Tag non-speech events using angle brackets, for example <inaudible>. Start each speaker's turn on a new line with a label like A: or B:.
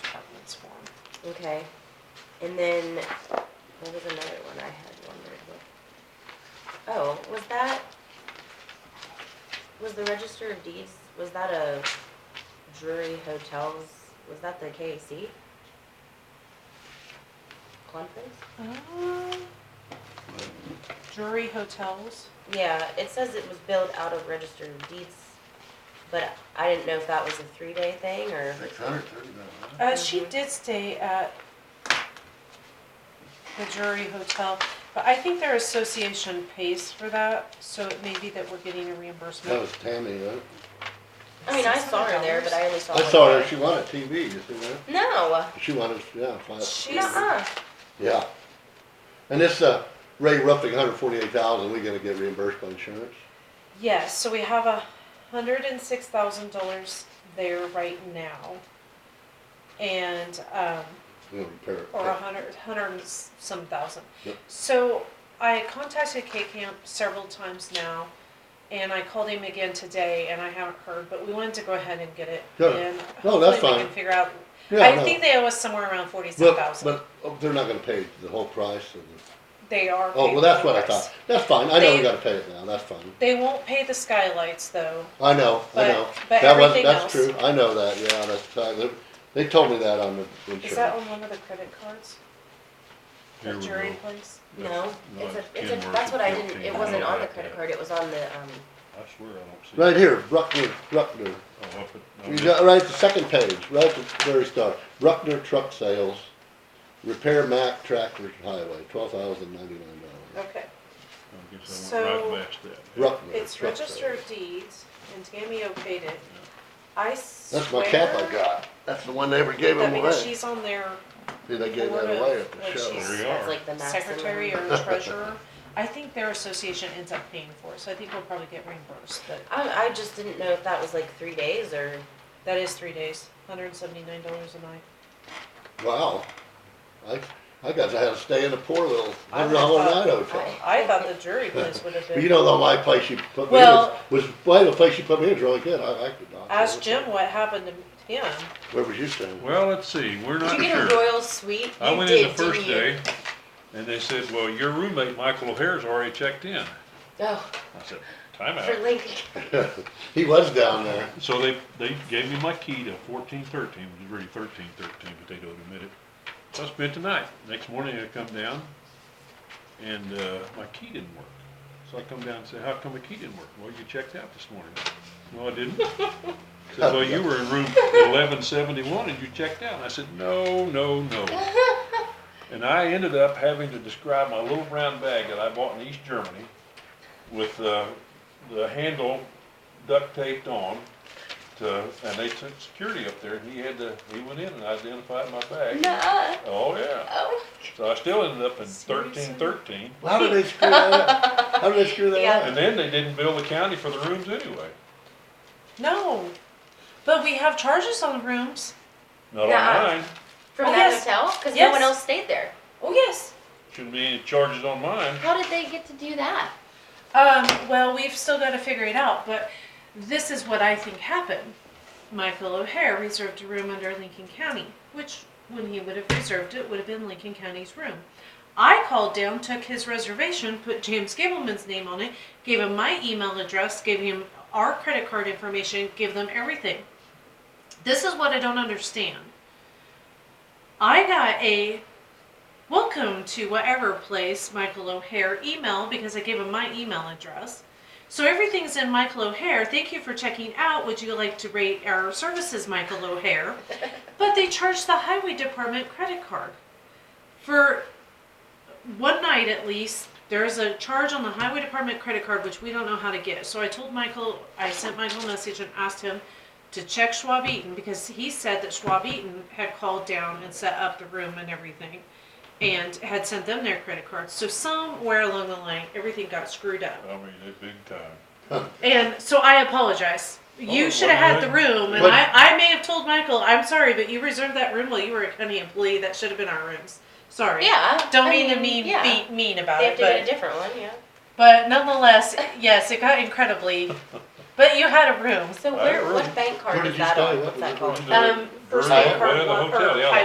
A: Okay, and then, what was another one I had wondered what? Oh, was that, was the register of deeds, was that a Drury Hotels, was that the KAC? Conference?
B: Um, Drury Hotels.
A: Yeah, it says it was billed out of register of deeds, but I didn't know if that was a three-day thing or,
C: Six hundred thirty-nine,
B: Uh, she
A: Mhm.
B: did stay at the Drury Hotel, but I think their association pays for that, so it may be that we're getting a
C: That
B: reimbursement.
C: was Tammy, huh?
A: I mean, I saw her there, but I only saw
C: I
B: Oh,
A: one
C: saw
A: day.
C: her, she wanted TV, you see that?
A: No,
C: She wanted, yeah, five,
B: She's,
A: nuh-uh,
C: yeah. And this, uh, Ray roughing hundred forty-eight thousand, we gonna get reimbursed by insurance?
B: yes, so we have a hundred and six thousand dollars there right now. And, um,
C: We're gonna repair it.
B: or a hundred, hundred and s- some thousand.
C: Yep.
B: So I contacted K-Camp several times now, and I called him again today, and I haven't heard, but we wanted to go ahead and get it.
C: Sure.
B: And
C: No,
B: hopefully
C: that's
B: we
C: fine.
B: can figure out,
C: Yeah,
B: I
C: no.
B: think they owe us somewhere around forty-seven
C: But,
B: thousand.
C: but oh, they're not gonna pay the whole price of the,
B: They are.
C: oh,
B: paid
C: well, that's
B: for
C: what I
B: the price.
C: thought. That's fine, I know we
B: They-
C: gotta pay it now, that's fine.
B: They won't pay the skylights, though.
C: I know, I
B: But-
C: know.
B: but
C: That was,
B: everything
C: that's
B: else-
C: true, I know that, yeah, that's, uh, they- they told me that on the
B: Is that
C: insurance.
B: on one of the credit cards?
D: Here
B: The
D: we
B: jury
D: go.
B: place?
A: no, it's a,
D: That's
A: it's
D: ten
A: a, that's
D: worth
A: what
D: of
A: I didn't, it
D: fifteen.
A: wasn't
D: Yeah,
A: on the
D: yeah.
A: credit card, it was on the, um,
D: I swear I don't see.
C: Right here, Bruckner, Bruckner.
D: Oh, up at-
C: You got right, the second page, right at the very start, Bruckner Truck Sales, Repair Mack Tractor Highway, twelve thousand ninety-nine dollars.
B: Okay.
D: I guess I
B: So-
D: went right past that.
C: Bruckner
B: It's
C: Truck
B: register
C: Sales.
B: of deeds, and Tammy okayed it. I swear.
C: That's my cap I got, that's the one they ever gave
B: That
C: him
B: means
C: away.
B: she's on their
C: See, they gave
B: board
C: that
B: of-
C: away at the
B: like
C: show.
B: she's-
D: There you
A: that's
D: are.
A: like the maximum.
B: secretary
C: <laughs>
B: or treasurer. I think their association ends up paying for it, so I think we'll probably get reimbursed, but
A: I, I just didn't know if that was like three days or,
B: that is three days, hundred and seventy-nine dollars a night.
C: Wow, I, I guess I had to stay in a poor little
B: I
C: hundred dollar
B: thought-
C: night hotel.
B: I thought the jury
C: <laughs>
B: place would have
C: But you
B: been,
C: know, though, my place you put me in was,
B: Well-
C: was, well, the place you put me in was really good, I liked it. Doc.
B: ask Jim what happened to him.
C: Where was you staying?
D: Well, let's see, we're
A: did
D: not
A: you get a
D: sure.
A: royal suite?
D: I
A: You
D: went in the
A: did, didn't
D: first
A: you?
D: day and they said, well, your roommate, Michael O'Hare's already checked in.
A: Oh,
D: I said, time
A: for
D: out.
A: Lincoln,
C: He was down there.
D: So they, they gave me my key to fourteen thirteen, which is really thirteen thirteen, but they don't admit it. So I spent the night. Next morning I come down and, uh, my key didn't work. So I come down and say, how come the key didn't work? Well, you checked out this morning. No, I didn't. Said, well, you were in room eleven seventy-one and you checked out. And I said, no, no, no. And I ended up having to describe my little brown bag that I bought in East Germany with, uh, the handle duct taped on to, and they took security up there and he had to, he went in and identified my bag.
A: nuh-uh,
D: Oh, yeah.
A: oh.
D: So I still ended up in
B: Seriously?
D: thirteen thirteen.
C: How did they screw that
B: <laughs>
C: up? How did they screw that
A: Yeah.
C: up?
D: And then they didn't bill the county for the rooms anyway.
B: No, but we have charges on the rooms.
D: Not on
A: Nuh-uh.
D: mine.
A: From
B: Oh,
A: that
B: yes.
A: hotel? Cause no
B: Yes.
A: one else stayed there.
B: Oh, yes.
D: Shouldn't be any charges on mine.
A: How did they get to do that?
B: Um, well, we've still gotta figure it out, but this is what I think happened. Michael O'Hare reserved a room under Lincoln County, which, when he would have reserved it, would have been Lincoln County's room. I called down, took his reservation, put James Gableman's name on it, gave him my email address, gave him our credit card information, gave them everything. This is what I don't understand. I got a welcome to whatever place Michael O'Hare email because I gave him my email address. So everything's in Michael O'Hare. Thank you for checking out. Would you like to rate our services, Michael O'Hare? But they charged the highway department credit card for one night at least. There is a charge on the highway department credit card which we don't know how to get. So I told Michael, I sent Michael a message and asked him to check Schwab Eaton because he said that Schwab Eaton had called down and set up the room and everything and had sent them their credit cards. So somewhere along the line, everything got screwed up.
D: I mean, they big time.
B: And so I apologize. You
D: Oh,
B: should have had
D: well,
B: the room, and
C: But-
B: I, I may have told Michael, I'm sorry, but you reserved that room while you were a county employee. That should have been our rooms. Sorry.
A: Yeah.
B: Don't
A: I
B: mean, to mean
A: yeah.
B: be mean about
A: They have
B: it,
A: to get a
B: but,
A: different one, yeah.
B: but nonetheless, yes, it got incredibly. But you had a room.
A: So
D: I
A: where, what
D: really-
A: bank card
C: Where
A: is
C: did you
A: that
C: stay?
A: on?
C: What
A: What's
C: was
A: that
C: it
A: called?
D: Going to the-
B: Um, first
D: Well,
B: name,
C: Hyatt?
B: card
D: the
B: one,
D: hotel,
B: or
D: yeah,